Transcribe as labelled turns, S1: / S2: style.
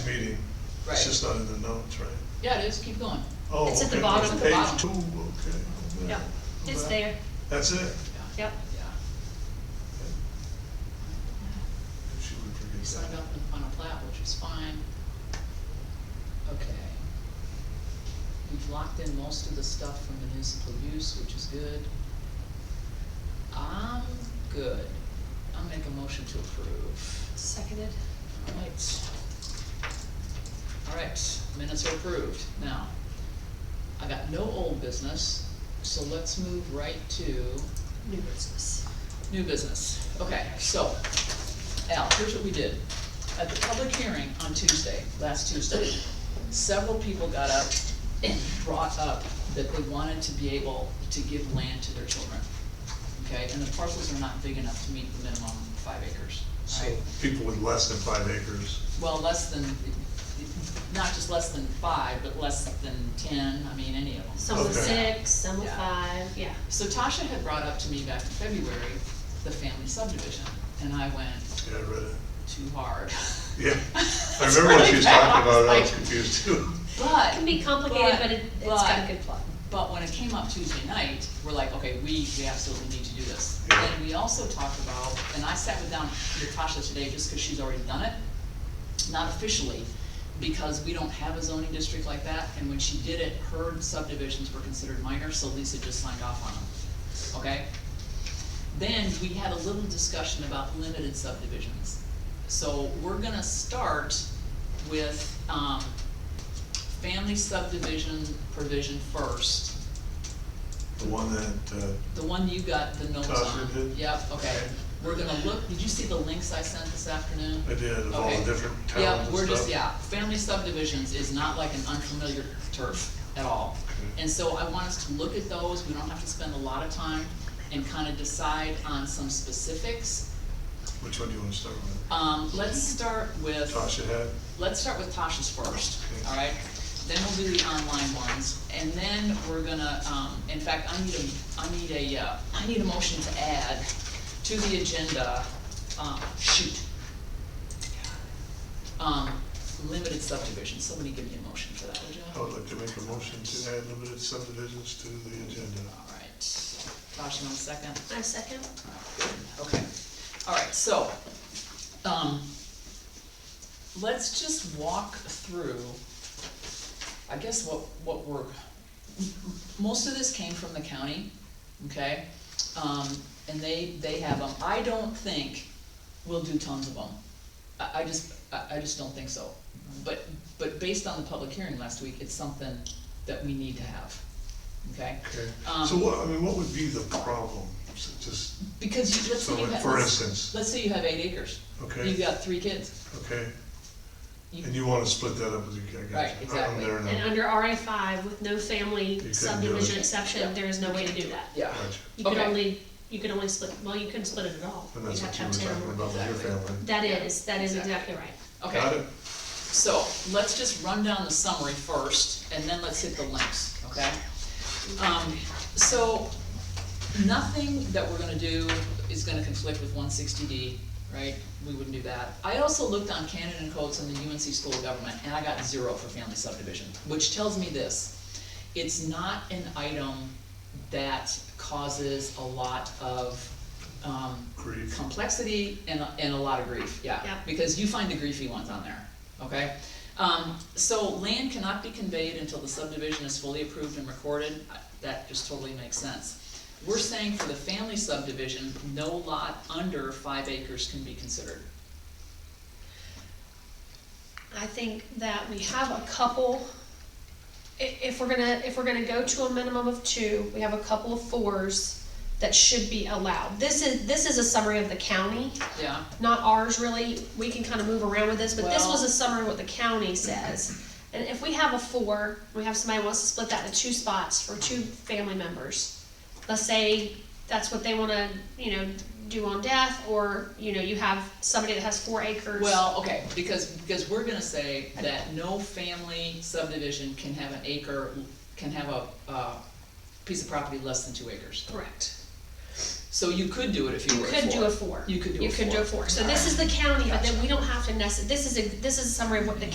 S1: meeting. It's
S2: Right.
S1: just not in the notes, right?
S2: Yeah, it is, keep going.
S1: Oh,
S3: It's at the
S1: okay,
S3: bottom.
S1: that's
S2: It's at the bottom.
S1: Page two, okay. I'm
S3: Yep,
S1: back. I'm
S3: it's
S1: back.
S3: there,
S1: That's it?
S2: Yeah,
S3: yep.
S2: yeah.
S1: She would
S2: We
S1: forget
S2: signed
S1: that.
S2: up on- on a plat, which is fine. Okay. We've locked in most of the stuff for municipal use, which is good. I'm good. I'll make a motion to approve.
S3: Seconded.
S2: Alright. Alright, minutes are approved. Now, I got no old business, so let's move right to
S3: New business.
S2: New business, okay, so, Al, here's what we did. At the public hearing on Tuesday, last Tuesday, several people got up and brought up that they wanted to be able to give land to their children. Okay, and the parcels are not big enough to meet the minimum five acres,
S1: So,
S2: right?
S1: people with less than five acres,
S2: Well, less than, not just less than five, but less than ten, I mean, any of them.
S3: Some were
S1: Okay.
S3: six, some were
S2: Yeah.
S3: five, yeah.
S2: So Tasha had brought up to me back in February, the family subdivision, and I went,
S1: yeah, I read it.
S2: too hard.
S1: Yeah, I
S2: It's
S1: remember what she
S2: really
S1: was
S2: bad.
S1: talking about, I
S2: Like,
S1: was confused too.
S3: It can be
S2: But,
S3: complicated, but it, it's got a good plot.
S2: but when it came up Tuesday night, we're like, okay, we, we absolutely need to do this.
S1: Yeah.
S2: And we also talked about, and I sat with down with Tasha today, just because she's already done it, not officially, because we don't have a zoning district like that, and when she did it, her subdivisions were considered minor, so Lisa just signed off on them, okay? Then we had a little discussion about limited subdivisions. So we're gonna start with, um, family subdivision provision first,
S1: The one that, uh,
S2: the one you got the notes on.
S1: Tasha did?
S2: Yep, okay.
S1: Okay.
S2: We're gonna look, did you see the links I sent this afternoon?
S1: I did, of all the
S2: Okay.
S1: different towns and stuff.
S2: Yeah, we're just, yeah, family subdivisions is not like an unfamiliar turf at all.
S1: Okay.
S2: And so I want us to look at those, we don't have to spend a lot of time, and kind of decide on some specifics.
S1: Which one do you wanna start with?
S2: Um, let's start with,
S1: Tasha had,
S2: let's start with Tasha's first,
S1: Okay.
S2: alright? Then we'll do the online ones, and then we're gonna, um, in fact, I need a, I need a, uh, I need a motion to add to the agenda, um, shoot. Um, limited subdivision, somebody give me a motion for that, would you?
S1: I would like to make a motion to add limited subdivisions to the agenda.
S2: Alright, Tasha, one second.
S3: I second.
S2: Okay, all right, so, um, let's just walk through, I guess what, what we're, most of this came from the county, okay? Um, and they, they have them, I don't think we'll do tons of them. I, I just, I, I just don't think so. But, but based on the public hearing last week, it's something that we need to have, okay?
S1: Okay,
S2: Um,
S1: so what, I mean, what would be the problem? So Just,
S2: Because you, let's
S1: so
S2: say you
S1: like,
S2: have,
S1: for
S2: let's,
S1: instance,
S2: let's say you have eight acres. You've
S1: okay,
S2: got three kids.
S1: okay,
S2: You-
S1: and you wanna split that up with your, I got you.
S2: Right,
S1: I'm-
S2: exactly.
S1: I'm there
S3: And
S1: now.
S3: under RI five, with no
S1: do
S3: family
S1: it.
S3: subdivision
S2: Yeah.
S3: exception, there is no way to do that.
S2: Yeah.
S1: Gotcha.
S3: You could
S2: Okay.
S3: only, you could only split, well, you couldn't split it at all.
S1: And
S3: You'd
S1: that's
S3: have
S1: what
S3: to
S1: you were
S3: have ten or
S1: talking
S3: more.
S1: about with your
S2: Exactly.
S1: family.
S3: That is, that is
S2: Exactly.
S3: exactly right.
S1: Got
S2: Okay,
S1: it?
S2: so let's just run down the summary first, and then let's hit the links, okay? Um, so, nothing that we're gonna do is gonna conflict with one sixty D, right? We wouldn't do that. I also looked on Canon and Codes and the UNC School of Government, and I got zero for family subdivision, which tells me this. It's not an item that causes a lot of, um,
S1: Grief.
S2: complexity and, and a lot of grief, yeah.
S3: Yeah.
S2: Because you find the griefy ones on there, okay? Um, so land cannot be conveyed until the subdivision is fully approved and recorded, I- that just totally makes sense. We're saying for the family subdivision, no lot under five acres can be considered.
S3: I think that we have a couple, i- if we're gonna, if we're gonna go to a minimum of two, we have a couple of fours that should be allowed. This is, this is a summary of the county,
S2: Yeah,
S3: not ours really, we can kind of move around with this, but this
S2: Well-
S3: was a summary of what the county says. And if we have a four, we have somebody wants to split that into two spots for two family members. Let's say that's what they wanna, you know, do on death, or, you know, you have somebody that has four acres.
S2: well, okay, because, because we're gonna say that no family subdivision can have an acre, can have a, uh, piece of property less than two acres.
S3: Correct.
S2: So you could do it if you
S3: You
S2: were
S3: could do a four.
S2: You could do a
S3: You could do a
S2: four.
S3: four, so this is the county, but then
S2: Gotcha.
S3: we don't have to necess, this is a, this is a summary of what the